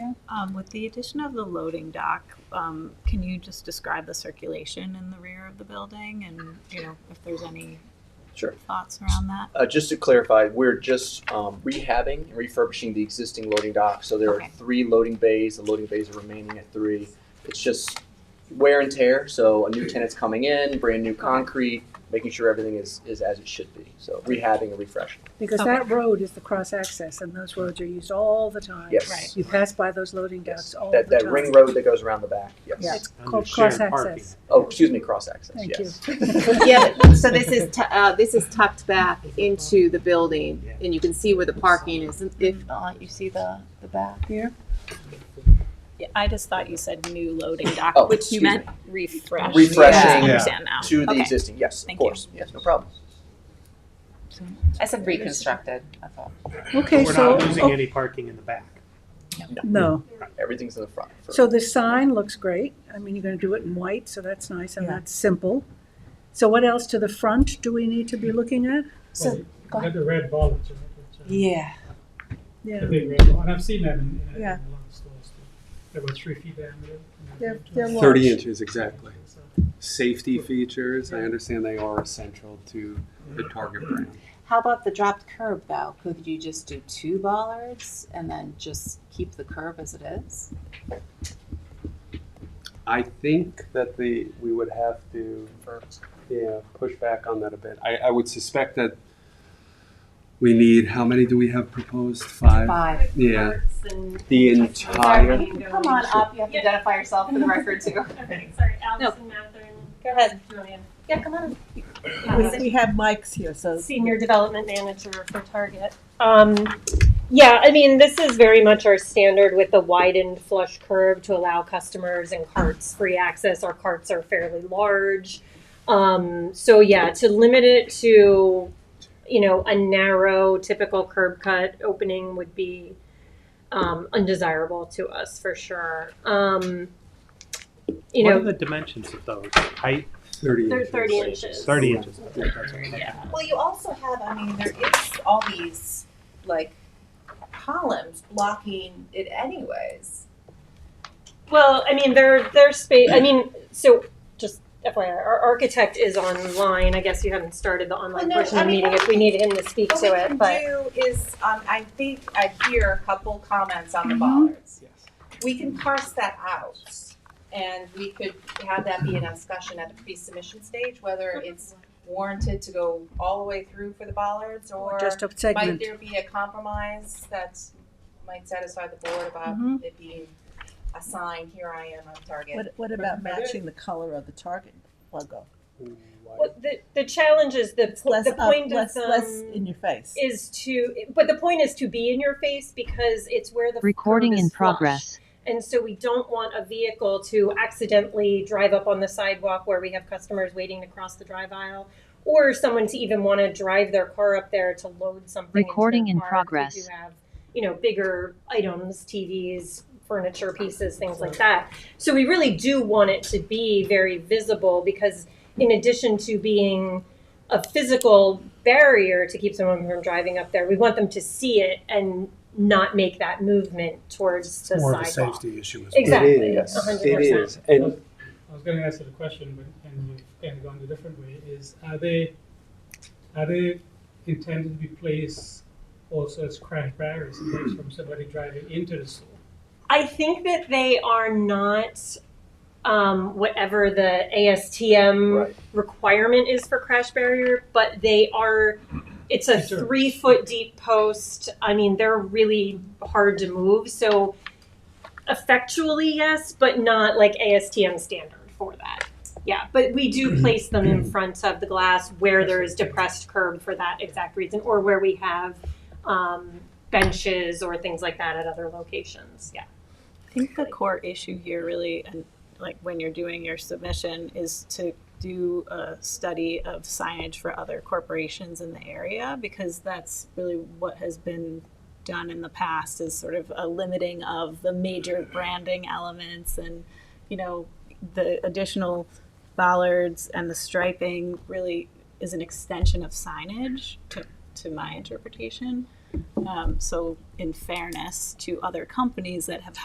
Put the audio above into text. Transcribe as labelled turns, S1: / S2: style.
S1: Um, with the addition of the loading dock, um, can you just describe the circulation in the rear of the building and, you know, if there's any
S2: Sure.
S1: thoughts around that?
S2: Uh, just to clarify, we're just um, rehabbing and refurbishing the existing loading dock. So there are
S1: Okay.
S2: three loading bays. The loading bays are remaining at three. It's just wear and tear. So a new tenant's coming in, brand new concrete, making sure everything is, is as it should be. So rehabbing and refreshing.
S3: Because
S1: Okay.
S3: that road is the cross access and those roads are used all the time.
S2: Yes.
S1: Right.
S3: You pass by those loading
S2: Yes.
S3: docks all the
S2: That,
S3: time.
S2: that ring road that goes around the back. Yes.
S3: Yeah, It's
S4: Under
S3: called
S4: shared
S3: cross
S4: parking.
S3: access.
S2: Oh, excuse me, cross access.
S3: Thank
S2: yes.
S5: Yeah, but- so this is, tu- uh, this is tucked back into the building, and you can see where the parking is, if, uh, you see the, the back here?
S1: Yeah, I just thought you said new loading
S2: Oh,
S1: dock, which you
S2: excuse
S1: meant refresh.
S2: Refreshing.
S1: Yeah, I
S2: Yeah.
S1: understand now.
S2: To the
S1: Okay.
S2: existing. Yes,
S1: Thank
S2: of course. Yes, no problem.
S5: I said reconstructed, I thought.
S3: Okay,
S4: We're not losing
S3: so, oh,
S4: any parking in the back.
S3: no.
S2: Everything's in the front. for-
S3: So the sign looks great. I mean, you're gonna do it in white, so that's nice and
S6: Yeah.
S3: that's simple. So what else to the front do we need to be looking at?
S5: So, go
S7: Got the red ballards in it. which, uh,
S6: Yeah.
S3: Yeah,
S7: The big red ball, and I've seen them in, in, in
S6: Yeah.
S7: a lot of stores. too. They're about three feet diameter. and
S3: They're-
S7: two
S3: they're
S7: and a half.
S3: Large.
S8: Thirty inches, exactly.
S7: So,
S8: Safety features, I understand they are essential to the Target brand.
S5: How about the dropped curb though? Could you just do two bollards and then just keep the curb as it is?
S8: I think that the, we would have to, yeah, push back on that a bit. I, I would suspect that we need, how many do we have proposed? Five?
S5: Five.
S8: Yeah, the entire,
S5: Come on up, you have to identify yourself for the record too.
S9: Okay, sorry, Allison Matherin. Go ahead. Julian.
S5: Yeah, come on
S6: We we have mics here, so.
S9: Senior Development Manager for Target. Um, yeah, I mean, this is very much our standard with the widened flush curve to allow customers and carts free access. Our carts are fairly large. Um, so yeah, to limit it to, you know, a narrow typical curb cut opening would be um, undesirable to us for sure. Um, you
S4: What
S9: know,
S4: are the dimensions of those? Height,
S8: thirty
S9: They're
S8: inches.
S9: 30 inches.
S4: thirty inches.
S5: Well, you also have, I mean, there is all these like columns blocking it anyways.
S9: Well, I mean, their their space. I mean, so just FYI, our architect is online. I guess you haven't started the
S5: Well,
S9: online
S5: no,
S9: portion
S5: I
S9: of the
S5: mean,
S9: meeting. If we need him to speak
S5: What we
S9: to it,
S5: can
S9: but
S5: do is, um, I think I hear a couple comments on the bollards. We can parse that out, and we could have that be in a discussion at the pre-submission stage, whether
S9: Mm-hmm.
S5: it's warranted to go all the way through for the bollards, or
S3: just a
S5: might
S3: segment.
S5: there be a compromise that might satisfy the board about
S6: Mhm.
S5: it being a sign, here I am, I'm Target.
S6: What, what about matching the color of the Target logo?
S9: well, the the challenge is the
S6: It's less
S9: the
S6: up,
S9: point
S6: less,
S9: of
S6: less
S9: um,
S6: in your face.
S9: is to, but the point is to be in your face because it's where the
S10: Recording
S9: curb is
S10: in
S9: flush.
S10: progress.
S9: And so we don't want a vehicle to accidentally drive up on the sidewalk where we have customers waiting to cross the drive aisle, or someone to even want to drive their car up there to load something. into
S10: Recording
S9: their
S10: in
S9: car.
S10: progress.
S9: We do have, you know, bigger items, TVs, furniture pieces, things like that. So we really do want it to be very visible because, in addition to being a physical barrier to keep someone from driving up there, we want them to see it and not make that movement towards the
S4: More of a
S9: sidewalk.
S4: safety issue as well.
S9: Exactly.
S8: It is,
S9: a hundred
S8: it
S9: percent.
S8: is, and
S7: I was gonna answer the question, but, and you've kind of gone a different way, is are they, are they intended to be placed also as crash barriers in case from somebody driving into the store?
S9: I think that they are not um, whatever the ASTM
S2: Right.
S9: requirement is for crash barrier, but they are. It's a
S7: Sure.
S9: three foot deep post. I mean, they're really hard to move. So, effectually, yes, but not like ASTM standard for that. Yeah, but we do place them in front of the glass where there is depressed curb for that exact reason, or where we have um, benches or things like that at other locations. Yeah.
S1: I think the core issue here really, and like when you're doing your submission, is to do a study of signage for other corporations in the area because that's really what has been done in the past is sort of a limiting of the major branding elements and you know the additional bollards and the striping really is an extension of signage to, to my interpretation um, so in fairness to other companies that have